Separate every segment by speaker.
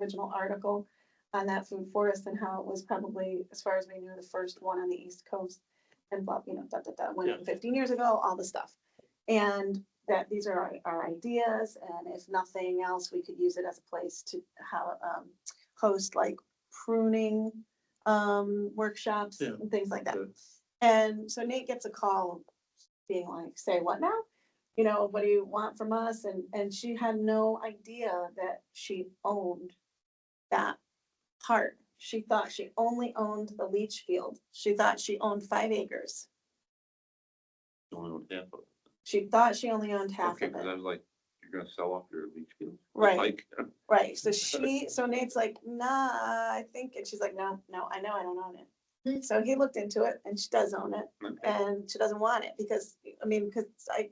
Speaker 1: original article on that food forest and how it was probably, as far as we knew, the first one on the East Coast. And blah, you know, da, da, da,
Speaker 2: Yeah.
Speaker 1: when fifteen years ago, all the stuff. And that these are our, our ideas, and if nothing else, we could use it as a place to how, um, host like pruning, um, workshops
Speaker 2: Yeah.
Speaker 1: and things like that.
Speaker 2: Good.
Speaker 1: And so Nate gets a call being like, say what now? You know, what do you want from us? And, and she had no idea that she owned that part. She thought she only owned the leach field. She thought she owned five acres.
Speaker 2: Only one half of it.
Speaker 1: She thought she only owned half
Speaker 2: Okay,
Speaker 1: of
Speaker 2: because I
Speaker 1: it.
Speaker 2: was like, you're gonna sell off your leach field?
Speaker 1: Right.
Speaker 2: Like,
Speaker 1: Right. So she, so Nate's like, nah, I think, and she's like, no, no, I know I don't own it. So he looked into it and she does own it
Speaker 2: okay.
Speaker 1: and she doesn't want it because, I mean, because I,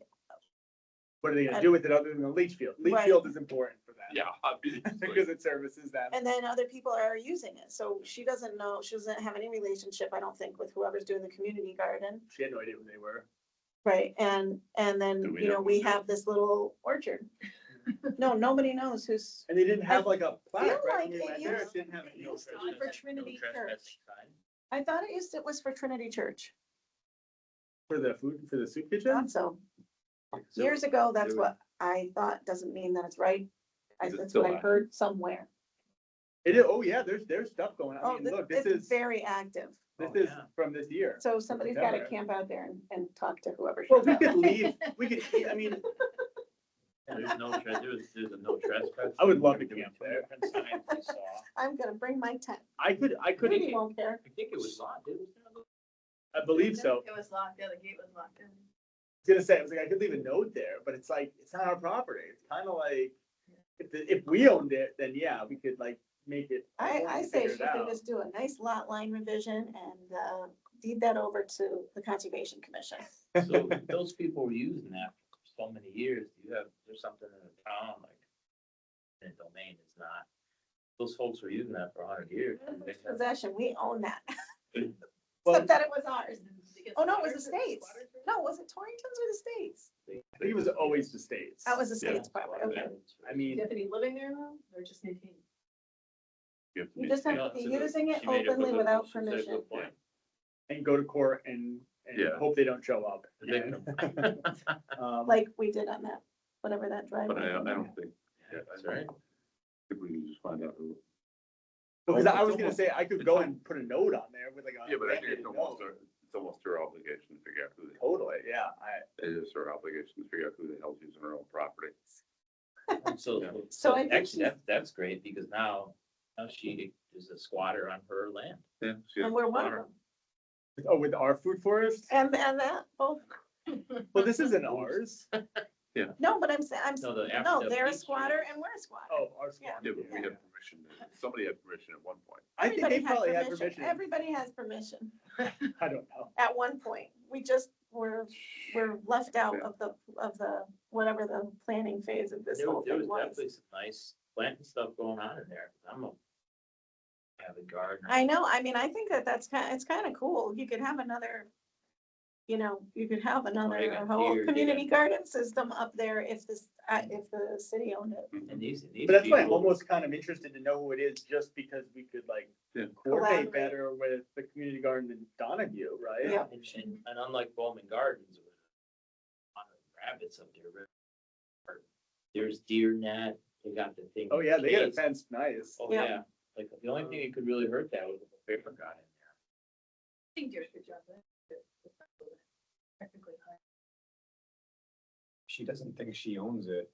Speaker 3: What are they
Speaker 1: I-
Speaker 3: gonna do with it other than the leach field? Leach
Speaker 1: Right.
Speaker 3: field is important for that.
Speaker 2: Yeah. obviously.
Speaker 3: Because it services that.
Speaker 1: And then other people are using it, so she doesn't know, she doesn't have any relationship, I don't think, with whoever's doing the community garden.
Speaker 3: She had no idea who they were.
Speaker 1: Right. And, and
Speaker 2: Do
Speaker 1: then,
Speaker 2: we
Speaker 1: you
Speaker 2: know
Speaker 1: know, we
Speaker 2: who's doing
Speaker 1: have this little orchard. No, nobody knows who's,
Speaker 3: And they didn't have like a
Speaker 1: feel
Speaker 3: plaque,
Speaker 1: like
Speaker 3: right? when we
Speaker 1: it
Speaker 3: went there.
Speaker 1: used-
Speaker 3: It Didn't have.
Speaker 1: it
Speaker 3: any
Speaker 1: used to
Speaker 3: official-
Speaker 1: for Trinity Church. I thought it used, it was for Trinity Church,
Speaker 3: For the food, for the soup kitchen?
Speaker 1: thought so.
Speaker 2: So
Speaker 1: Years ago, that's
Speaker 2: there
Speaker 1: what I thought, doesn't mean that it's right. I-
Speaker 2: Is it
Speaker 1: That's
Speaker 2: still
Speaker 1: what I
Speaker 2: live?
Speaker 1: heard somewhere.
Speaker 3: It is, oh yeah, there's, there's stuff going on. I
Speaker 1: Oh,
Speaker 3: mean,
Speaker 1: this-
Speaker 3: look, this
Speaker 1: it's
Speaker 3: is,
Speaker 1: very active,
Speaker 3: this
Speaker 4: Oh,
Speaker 3: is
Speaker 4: yeah.
Speaker 3: from this year.
Speaker 1: so somebody's gotta
Speaker 3: Whatever.
Speaker 1: camp out there and, and talk to whoever.
Speaker 3: Well, we could leave, we could, I mean,
Speaker 4: There's no, tre- there's, there's a no trespass.
Speaker 3: I would love to
Speaker 4: There were
Speaker 3: camp
Speaker 4: two
Speaker 3: there.
Speaker 4: different signs I saw.
Speaker 1: I'm gonna bring my tent,
Speaker 3: I could, I could,
Speaker 1: Rudy won't care.
Speaker 4: I think it was locked, didn't it?
Speaker 3: I believe so.
Speaker 5: It was locked, the other gate was locked in.
Speaker 3: I was gonna say, I was like, I could leave a note there, but it's like, it's not our property. It's kind of like, if, the- if we owned it, then yeah, we could like make it.
Speaker 1: I,
Speaker 3: we
Speaker 1: I
Speaker 3: could
Speaker 1: say
Speaker 3: figure
Speaker 1: she
Speaker 3: it
Speaker 1: can
Speaker 3: out.
Speaker 1: just do a nice lot line revision and, uh, deed that over to the Conservation Commission.
Speaker 4: So those people were using that for so many years, you have, there's something in the town like. In domain is not, those folks were using that for a hundred years. and they have-
Speaker 1: Possession, we own that,
Speaker 3: Well,
Speaker 1: except that it was ours.
Speaker 5: Because
Speaker 1: Oh, no, it was the
Speaker 5: Waters-
Speaker 1: state's.
Speaker 5: Waters-
Speaker 1: No, was it Torrington's or the state's?
Speaker 3: I think it was always the states.
Speaker 1: That was the
Speaker 2: Yeah.
Speaker 1: state's property, okay.
Speaker 3: I mean,
Speaker 5: Tiffany living there though, or just maintaining?
Speaker 2: You have to
Speaker 1: You
Speaker 2: be-
Speaker 1: just have
Speaker 2: yeah,
Speaker 1: to be
Speaker 2: so the-
Speaker 1: using it
Speaker 2: she made
Speaker 1: openly
Speaker 2: with a-
Speaker 1: without
Speaker 2: she said with
Speaker 1: permission.
Speaker 2: point.
Speaker 3: and go to court and, and
Speaker 2: Yeah.
Speaker 3: hope they don't show up.
Speaker 2: The victim.
Speaker 3: Um,
Speaker 1: Like we did on that, whatever that drive.
Speaker 2: But I, I don't think, yeah,
Speaker 4: That's
Speaker 2: that's
Speaker 4: right.
Speaker 2: right. If we can just find out who.
Speaker 3: Because I was gonna
Speaker 2: It's
Speaker 3: say, I could go and put a note on there with like a.
Speaker 2: Yeah, but I think
Speaker 3: handwritten
Speaker 2: it's almost,
Speaker 3: note.
Speaker 2: our- it's almost her obligation to figure out who, the-
Speaker 3: Totally, yeah, I,
Speaker 2: it is her obligation to figure out who the hell's using her own property.
Speaker 4: And So,
Speaker 2: Yeah.
Speaker 1: So
Speaker 4: so
Speaker 1: I think
Speaker 4: actually,
Speaker 1: she's-
Speaker 4: that, that's great because now, now she is a squatter on her land.
Speaker 2: Yeah. she has
Speaker 1: And we're one of
Speaker 2: honor.
Speaker 1: them.
Speaker 3: oh, with our food forest?
Speaker 1: And, and that, both,
Speaker 3: Well, this isn't ours.
Speaker 1: no, but I'm, sa- I'm,
Speaker 4: No, the
Speaker 1: no,
Speaker 4: Aphrodite
Speaker 1: they're a
Speaker 4: beach
Speaker 1: squatter and we're a squatter.
Speaker 3: Oh, ours.
Speaker 1: Yeah.
Speaker 2: Yeah, but we
Speaker 1: Yeah.
Speaker 2: have permission, somebody had permission at one point.
Speaker 3: I think they
Speaker 1: Everybody had
Speaker 3: probably had permission.
Speaker 1: Everybody has permission.
Speaker 3: I don't know.
Speaker 1: at one point. We just were, were left out
Speaker 2: Yeah.
Speaker 1: of the, of the, whatever the planning phase of this
Speaker 4: There
Speaker 1: whole
Speaker 4: was, there
Speaker 1: thing
Speaker 4: was
Speaker 1: was.
Speaker 4: definitely some nice planting stuff going on in there. I'm a avid gardener.
Speaker 1: I know, I mean, I think that that's kind, it's kind of cool. You could have another, you know, you could have another
Speaker 4: got
Speaker 1: whole
Speaker 4: deer, you
Speaker 1: community garden system up there if this, uh, if the city owned it.
Speaker 4: And these, and these.
Speaker 3: But that's why I'm
Speaker 4: people-
Speaker 3: almost kind of interested to know who it is, just because we could like
Speaker 2: Yeah.
Speaker 1: Collaborate.
Speaker 3: coordinate better with the community garden in Donahue, right?
Speaker 1: Yeah.
Speaker 4: And, and and unlike Bowman Gardens, with a lot of rabbits up there, or there's deer net, they got the thing.
Speaker 3: Oh, yeah, they got it
Speaker 4: caged.
Speaker 3: fenced nice.
Speaker 4: Oh,
Speaker 1: Yeah.
Speaker 4: yeah, like, the only thing that could really hurt that was if a paper got in there.
Speaker 5: I think yours could jump in. It's- it's not really Technically, high.
Speaker 6: she doesn't think she owns it.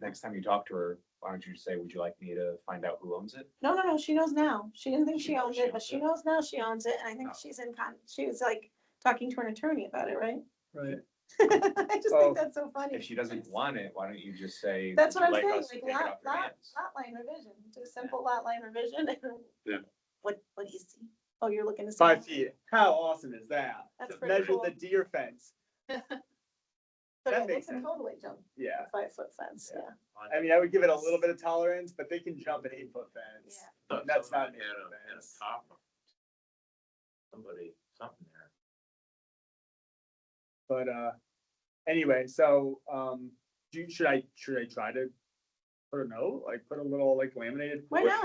Speaker 6: Next time you talk to her, why don't you just say, would you like me to find out who owns it?
Speaker 1: No, no, no, she knows now. She didn't think she owned it, but
Speaker 4: owns
Speaker 1: she
Speaker 4: it.
Speaker 1: knows now she owns it. And I think
Speaker 4: Oh.
Speaker 1: she's in con, she was like talking to an attorney about it, right?
Speaker 3: Right.
Speaker 1: I just
Speaker 3: Well,
Speaker 1: think that's so funny.
Speaker 6: If she doesn't want it, why don't you just say?
Speaker 1: That's
Speaker 6: "Would
Speaker 1: what I'm
Speaker 6: you
Speaker 1: saying,
Speaker 6: us to
Speaker 1: like
Speaker 6: take it
Speaker 1: lot,
Speaker 6: off your
Speaker 1: lot,
Speaker 6: hands?"
Speaker 1: lot line revision, do a simple lot line revision. and-
Speaker 2: Yeah.
Speaker 1: What, what do you see? Oh, you're looking to. see
Speaker 3: Five
Speaker 1: it.
Speaker 3: feet. How awesome is that?
Speaker 1: That's pretty
Speaker 3: Measure
Speaker 1: cool.
Speaker 3: the deer fence.
Speaker 1: So
Speaker 3: that
Speaker 1: yeah, they
Speaker 3: makes
Speaker 1: can
Speaker 3: sense.
Speaker 1: totally jump
Speaker 3: Yeah.
Speaker 1: a five foot fence, yeah.
Speaker 3: Yeah. I mean, I would give it a little bit of tolerance, but they can jump an eight foot fence.
Speaker 1: Yeah.
Speaker 4: Thought
Speaker 3: That's
Speaker 4: someone
Speaker 3: not
Speaker 4: had a-
Speaker 3: an issue,
Speaker 4: had a
Speaker 3: that's-
Speaker 4: top of Somebody, something there.
Speaker 3: But uh, anyway, so um, do, you- should I, should I try to put a note, like put a little like laminated.
Speaker 1: Why not?